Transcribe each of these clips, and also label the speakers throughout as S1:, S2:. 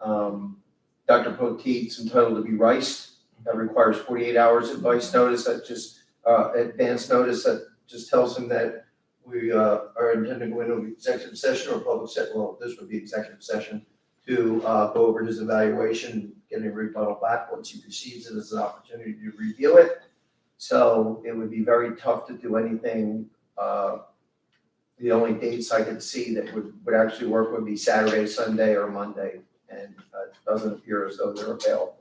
S1: Um, Dr. Poteet's entitled to be riced. That requires forty-eight hours advice notice, that just, uh, advance notice, that just tells him that we, uh, are intending to go into executive session or public session, well, this would be executive session, to, uh, go over his evaluation, get a rebuttal back once he receives it as an opportunity to review it. So it would be very tough to do anything, uh, the only dates I could see that would, would actually work would be Saturday, Sunday, or Monday, and uh, it doesn't appear as though they're available.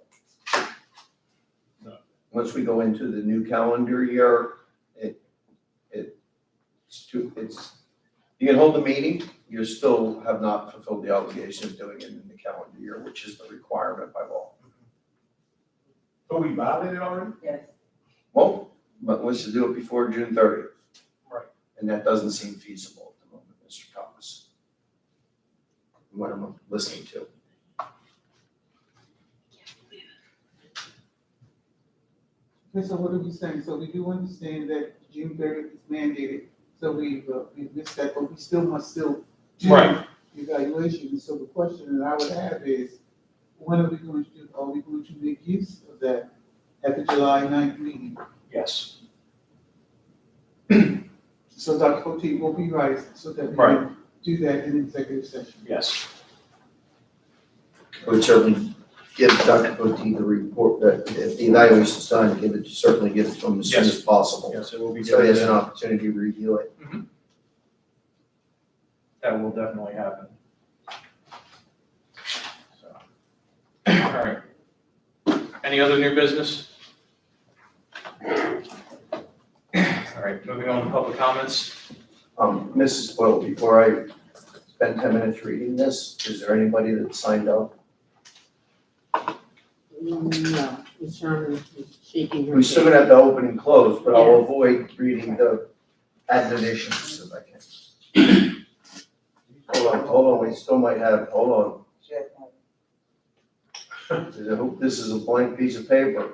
S2: No.
S1: Once we go into the new calendar year, it, it, it's too, it's, you can hold the meeting, you still have not fulfilled the obligation of doing it in the calendar year, which is the requirement by law.
S2: But we violated already?
S3: Yes.
S1: Well, but wants to do it before June thirtieth.
S2: Right.
S1: And that doesn't seem feasible at the moment, Mr. Thomas. From What I'm listening to.
S4: Okay, so what are we saying? So we do understand that June thirtieth is mandated, so we, uh, we missed that, but we still must still do
S2: Right.
S4: evaluation. So the question that I would have is, when are we going to, do? are we going to make use of that at the July 9th meeting?
S2: Yes.
S4: So Dr. Potte will be right, so that we
S2: Right.
S4: can do that in executive session.
S2: Yes.
S1: It Would certainly give Dr. Poteet the report, that if the evaluation's done, give it, certainly give it to him as soon as possible.
S2: Yes, it will be.
S1: So he has an
S2: good.
S1: opportunity to review it.
S2: That will definitely happen. So. All right. Any other new business? All right, moving on to public comments.
S1: Um, Mrs. Boyle, before I spend ten minutes reading this, is there anybody that signed up?
S5: Mm,
S3: No, Ms. Sherman is shaking her
S1: We're still
S3: head.
S1: gonna have to open and close, but I'll avoid reading the admonitions if I can. Hold on, hold on, we still might have, hold on. I hope this is a blank piece of paper,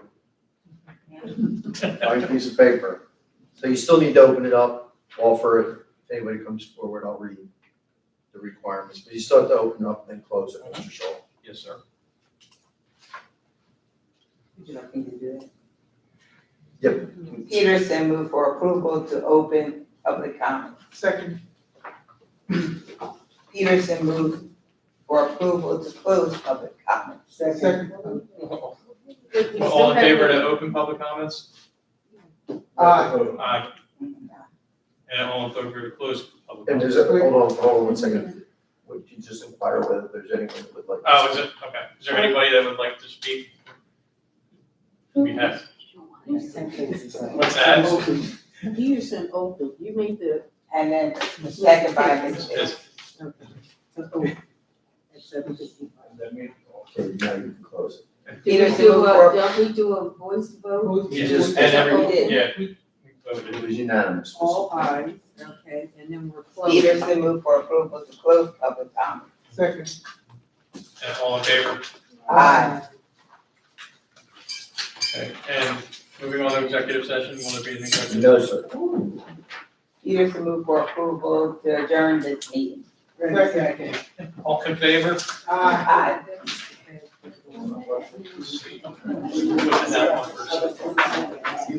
S1: blank piece of paper. So you still need to open it up, offer it, if anybody comes forward, I'll read the requirements, but you still have to open up and close it, Mr. Shaw.
S2: Yes, sir.
S5: Would you like me to do it?
S1: Yep.
S5: Peterson moved for approval to open public comment.
S4: Second,
S5: Peterson moved for approval to close public comment.
S4: second,
S3: But we still
S2: All in
S3: have
S2: favor
S3: to-
S2: to open public comments?
S4: aye.
S2: Aye. And all in favor to close public
S1: And
S2: comments?
S1: there's a, hold on, hold on one second. Would you just inquire whether there's anyone that would like? to
S2: Oh, is it, okay. Is there anybody that would like to speak? We have,
S3: You said-
S2: what's that?
S3: Peterson open, you made the.
S5: And then second by Ms. Bailey.
S2: Yes.
S3: Okay. So, oh, at 7:55.
S1: Okay, now you can close it.
S3: Did we do a, did we do a voice vote?
S1: You just-
S2: And
S3: every-
S2: yeah.
S4: We-
S2: We voted.
S1: It was unanimous.
S3: All ayes, okay, and then we're closed.
S5: Peterson moved for approval to close public comment.
S4: Second,
S2: And all in favor?
S5: Aye.
S2: Okay. And moving on to executive session, will there be an executive?
S1: No, sir.
S5: Peterson moved for approval to adjourn this meeting.
S4: second,
S2: All in favor?
S4: aye.
S5: Aye.
S2: Let's see. Put in that one first.